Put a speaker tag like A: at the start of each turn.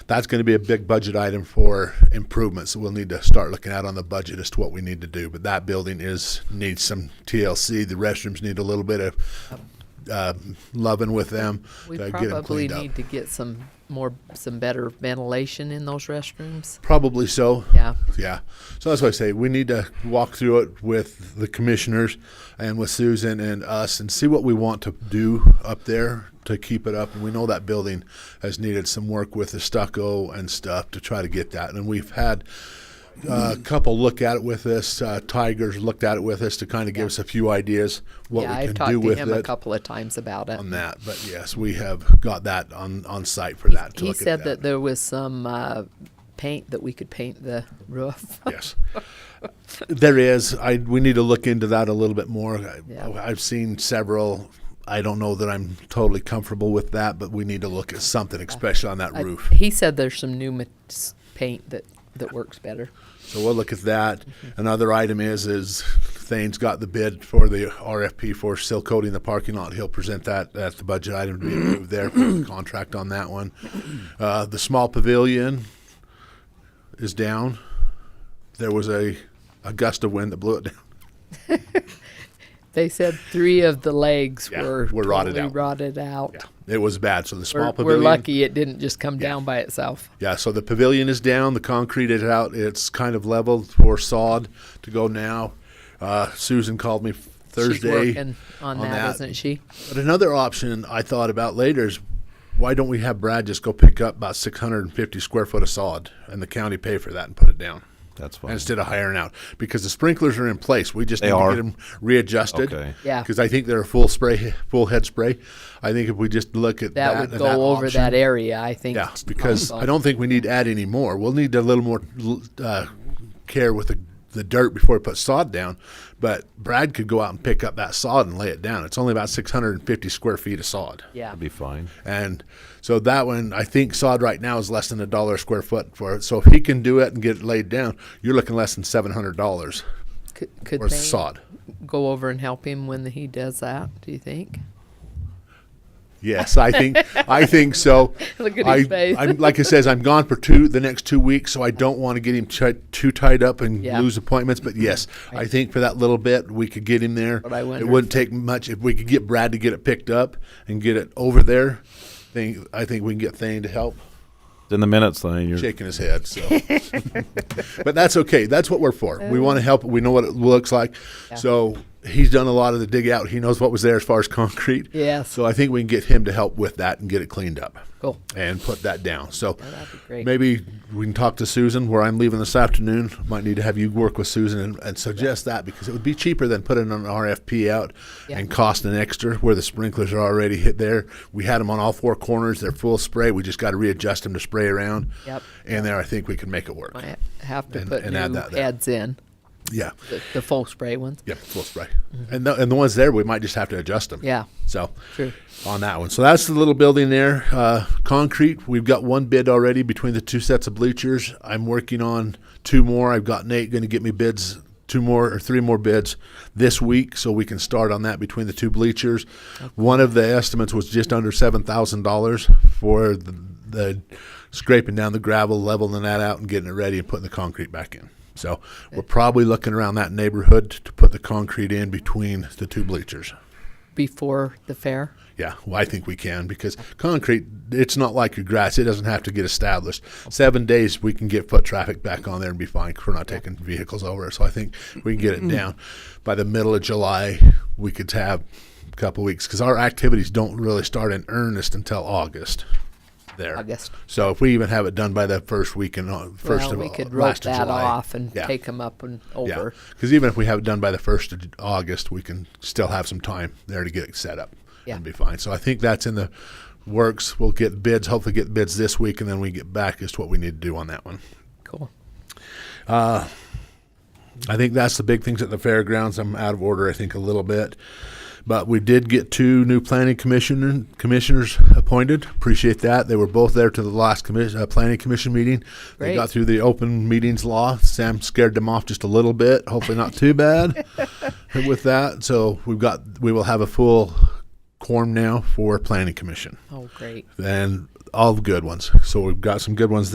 A: that's going to be a big budget item for improvements that we'll need to start looking at on the budget as to what we need to do. But that building is needs some TLC. The restrooms need a little bit of uh, loving with them
B: We
A: to get them
B: probably
A: cleaned up.
B: need to get some more, some better ventilation in those restrooms.
A: Probably so.
B: Yeah.
A: Yeah. So that's why I say we need to walk through it with the commissioners and with Susan and us and see what we want to do up there to keep it up. And we know that building has needed some work with the stucco and stuff to try to get that. And we've had uh, a couple look at it with us. Uh, Tigers looked at it with us to kind of give us a few ideas what
B: Yeah,
A: we
B: I've
A: can
B: talked
A: do
B: to
A: with
B: him a
A: it
B: couple of times about it.
A: on that. But yes, we have got that on, on site for that. To
B: He
A: look at
B: said that there was some, uh, paint that we could paint the roof.
A: yes. There is. I we need to look into that a little bit more. I,
B: Yeah.
A: I've seen several. I don't know that I'm totally comfortable with that, but we need to look at something, especially on that
B: I-
A: roof.
B: He said there's some new ma- s- paint that, that works better.
A: So we'll look at that.
B: Mm-hmm.
A: Another item is is Thane's got the bid for the RFP for seal coating the parking lot. He'll present that at the budget item to be approved there for the contract on that one. Uh, the small pavilion is down. There was a, a gust of wind that blew it down.
B: They said three of the legs
A: Yeah,
B: were
A: were rotted
B: totally
A: out.
B: rotted out.
A: Yeah, it was bad. So the small
B: We're, we're
A: pavilion.
B: lucky it didn't just come down by itself.
A: Yeah, so the pavilion is down. The concrete is out. It's kind of leveled for sod to go now. Uh, Susan called me Thursday
B: She's working on, that, isn't she?
A: But another option I thought about later is why don't we have Brad just go pick up about 650 square foot of sod and the county pay for that and put it down.
C: That's fine.
A: Instead of hiring out, because the sprinklers are in place, we just
C: They
A: need
C: are?
A: to get them readjusted.
C: Okay.
B: Yeah.
A: because I think they're a full spray, full head spray. I think if we just look at
B: That
A: that,
B: would
A: and
B: go over
A: option-
B: that area, I think.
A: yeah, because
B: also.
A: I don't think we need to add any more. We'll need a little more l- uh, care with the, the dirt before we put sod down. But Brad could go out and pick up that sod and lay it down. It's only about 650 square feet of sod.
B: Yeah.
C: That'd be fine.
A: And so that one, I think sod right now is less than a dollar a square foot for it. So if he can do it and get it laid down, you're looking less than $700
B: Could, could
A: worth
B: they
A: of sod.
B: go over and help him when he does that? Do you think?
A: Yes, I think I think so.
B: Look at
A: I,
B: his face.
A: I'm, like I says, I'm gone for two the next two weeks, so I don't want to get him chi- too tied up and
B: Yeah. Mm-hmm.
A: lose appointments. But yes, I think for that little bit we could get him there.
B: But I wonder
A: it wouldn't take much if we could get Brad to get it picked up and get it over there. Think I think we can get Thane to help
C: It's in the minutes, Thane. You're,
A: shaking his head. So, but that's okay. That's what we're for. We want to help. We know what it looks like. So he's done a lot of the dig out. He knows what was there as far as concrete.
B: Yes.
A: So I think we can get him to help with that and get it cleaned up.
B: Cool.
A: And put that down. So
B: that'd be great.
A: maybe we can talk to Susan where I'm leaving this afternoon. Might need to have you work with Susan and, and suggest that because it would be cheaper than putting an RFP out
B: Yeah.
A: and cost an extra where the sprinklers are already hit there. We had them on all four corners. They're full spray. We just got to readjust them to spray around.
B: Yep.
A: And there, I think we can make it work.
B: Might have to
A: And-
B: put
A: and
B: new
A: add that there.
B: heads in
A: Yeah.
B: the, the full spray ones.
A: Yep, full spray. And, the, and the ones there, we might just have to adjust them.
B: Yeah.
A: So
B: True.
A: on that one. So that's the little building there. Uh, concrete, we've got one bid already between the two sets of bleachers. I'm working on two more. I've got Nate going to get me bids, two more or three more bids this week so we can start on that between the two bleachers. One of the estimates was just under $7,000 for the, the scraping down the gravel, leveling that out, and getting it ready and putting the concrete back in. So we're probably looking around that neighborhood to put the concrete in between the two bleachers.
B: before the fair.
A: Yeah, well, I think we can because concrete, it's not like your grass. It doesn't have to get established. Seven days, we can get foot traffic back on there and be fine. 'cause We're not taking vehicles over. So I think we can get
B: Mm-hmm.
A: it down. By the middle of July, we could have a couple weeks because our activities don't really start in earnest until August there.
B: August.
A: So if we even have it done by the first week in, Au- first
B: well,
A: of
B: we
A: Au-
B: could rope
A: last of
B: that
A: July.
B: off and
A: Yeah.
B: take them up and over.
A: Because even if we have it done by the 1st of August, we can still have some time there to get it set up
B: Yeah.
A: and be fine. So I think that's in the works. We'll get bids, hopefully, get bids this week, and then we get back as to what we need to do on that one.
B: Cool.
A: I think that's the big things at the fairgrounds. I'm out of order, I think, a little bit. But we did get two new planning commission commissioners appointed. Appreciate that. They were both there to the last commission, uh, planning commission meeting. They
B: Great.
A: got through the open meetings law. Sam scared them off just a little bit. Hopefully not too bad with that. So we've got we will have a full quorum now for planning commission.
B: Oh, great.
A: Then all good ones. So we've got some good ones